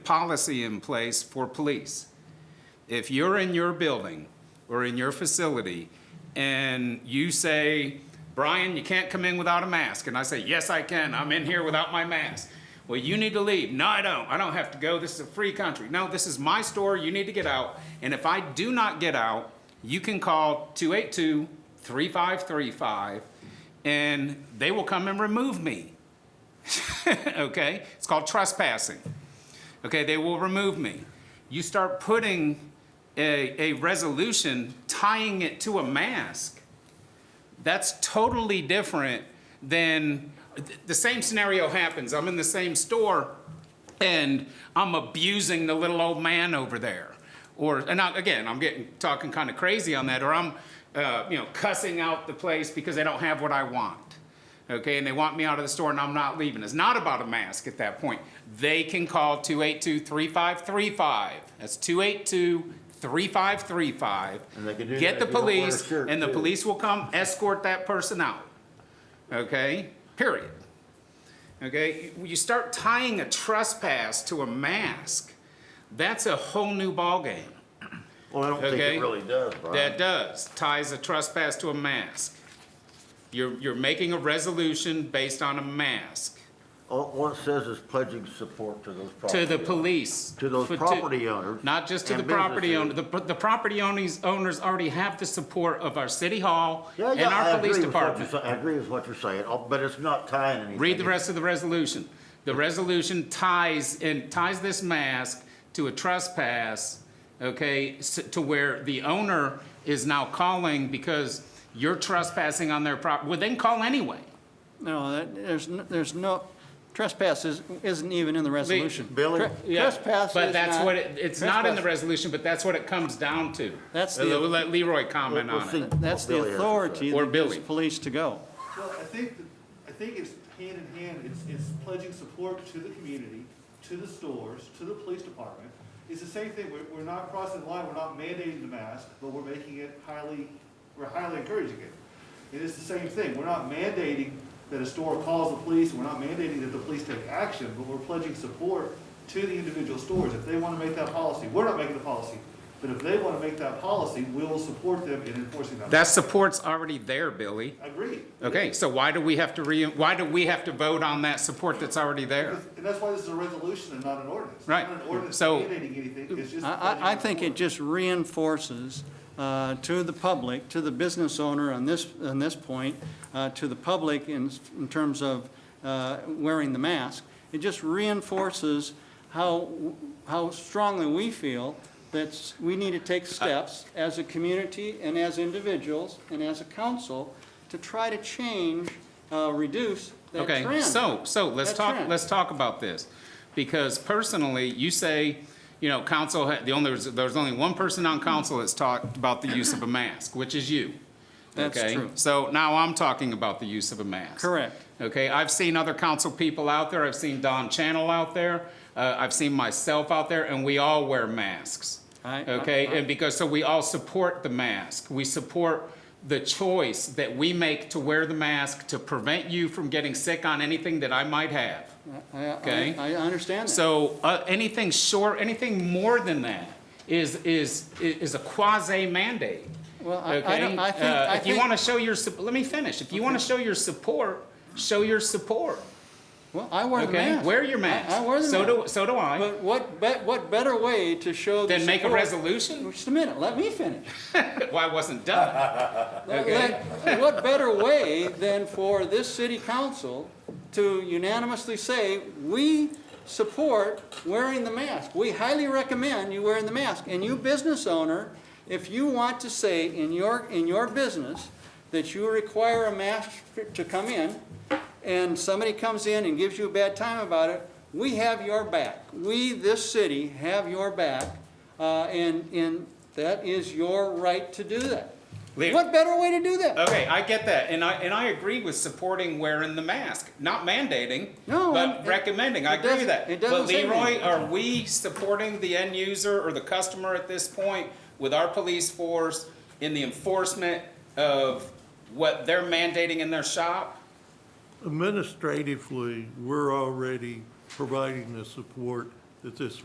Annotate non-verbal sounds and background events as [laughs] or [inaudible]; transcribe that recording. policy in place for police. If you're in your building or in your facility and you say, Brian, you can't come in without a mask, and I say, yes, I can, I'm in here without my mask. Well, you need to leave. No, I don't. I don't have to go. This is a free country. No, this is my store. You need to get out. And if I do not get out, you can call 282 3535 and they will come and remove me. [laughs] okay? It's called trespassing. Okay, they will remove me. You start putting a, a resolution, tying it to a mask. That's totally different than th- the same scenario happens. I'm in the same store and I'm abusing the little old man over there. Or, and I, again, I'm getting talking kind of crazy on that, or I'm, uh, you know, cussing out the place because they don't have what I want okay, and they want me out of the store and I'm not leaving. It's not about a mask at that point. They can call 282 3535. That's 282 3535. And they can do Get that the if you don't wear a police, shirt, and the too. police will come escort that person out. Okay, period. Okay, you start tying a trespass to a mask, that's a whole new ballgame. Well, I don't think Okay. it really does, That Brian. does, ties a trespass to a mask. You're, you're making a resolution based on a mask All all it says is pledging support to those property. to the owners. police. To those For- property owners. Not just to and the property owner, businesses. the, the property owners, owners already have the support of our city hall Yeah, and yeah, I our agree police with what you're department. sa- I agree with what you're saying, oh, but it's not tying anything. Read the rest of the resolution. The resolution ties, and ties this mask to a trespass, okay, s- to where the owner is now calling because you're trespassing on their property. Well, they can call anyway. No, that- there's, n- there's no, trespass is- isn't even in the resolution. Billy? Tre- Yeah, Trespass is But that's not- what, it- it's not in the trespass- resolution, but that's what it comes down to. That's Uh, the- We'll let Leroy comment We'll- we'll on see. it. resolution. That's Billy the has to say. authority Or that gives Billy. police to go. Well, I think, that- I think it's hand in hand, it's, it's pledging support to the community, to the stores, to the police department. It's the same thing, we're, we're not crossing the line, we're not mandating the mask, but we're making it highly, we're highly encouraging it. It is the same thing, we're not mandating that a store calls the police, we're not mandating that the police take action, but we're pledging support to the individual stores. If they wanna make that policy, we're not making the policy, but if they wanna make that policy, we'll support them in enforcing that. That support's already there, Billy. Agreed. Okay, so why do we have to re, why do we have to vote on that support that's already there? And that's why this is a resolution and not an ordinance. It's Right. Not an ordinance So- mandating anything, it's just. I, I- I think it just reinforces uh, to the public, to the business owner on this, on this point, uh, to the public in, in terms of uh, wearing the mask, it just reinforces how, how strongly we feel that we need to take steps as a community and as individuals and as a council to try to change, uh, reduce that trend. Okay, so, so let's That talk, trend. let's talk about this. Because personally, you say, you know, council, ha- the only, there's only one person on council that's talked about the use of a mask, which is you. That's Okay? true. So now I'm talking about the use of a mask. Correct. Okay, I've seen other council people out there, I've seen Don Channel out there, uh, I've seen myself out there, and we all wear masks. I- I- Okay, and because, so we all support the mask, we support the choice that we make to wear the mask to prevent you from getting sick on anything that I might have. I- I- Okay. I understand that. So, uh, anything short, anything more than that is, is, is a quasi mandate. Well, I- I don't- I think- I If you think- wanna show your, sup- let me finish, if you wanna show your support, show your support. Well, I wear the Okay, mask. wear your mask. I I wear the mask. So do, so do I. But what, be- what better way to show the Then make a support- resolution? Just a minute, let me finish. Why it wasn't done? Let- Okay. let- What better way than for this city council to unanimously say, we support wearing the mask. We highly recommend you wearing the mask. And you business owner, if you want to say in your, in your business that you require a mask for- to come in, and somebody comes in and gives you a bad time about it, we have your back. We, this city, have your back, uh, and, and that is your right to do that. Leave- What better way to do that? Okay, I get that, and I, and I agree with supporting wearing the mask, not mandating, No, but and- recommending, I it agree with doesn't- that. it doesn't say But Leroy, anything. are we supporting the end user or the customer at this point with our police force in the enforcement of what they're mandating in their shop? Administratively, we're already providing the support that this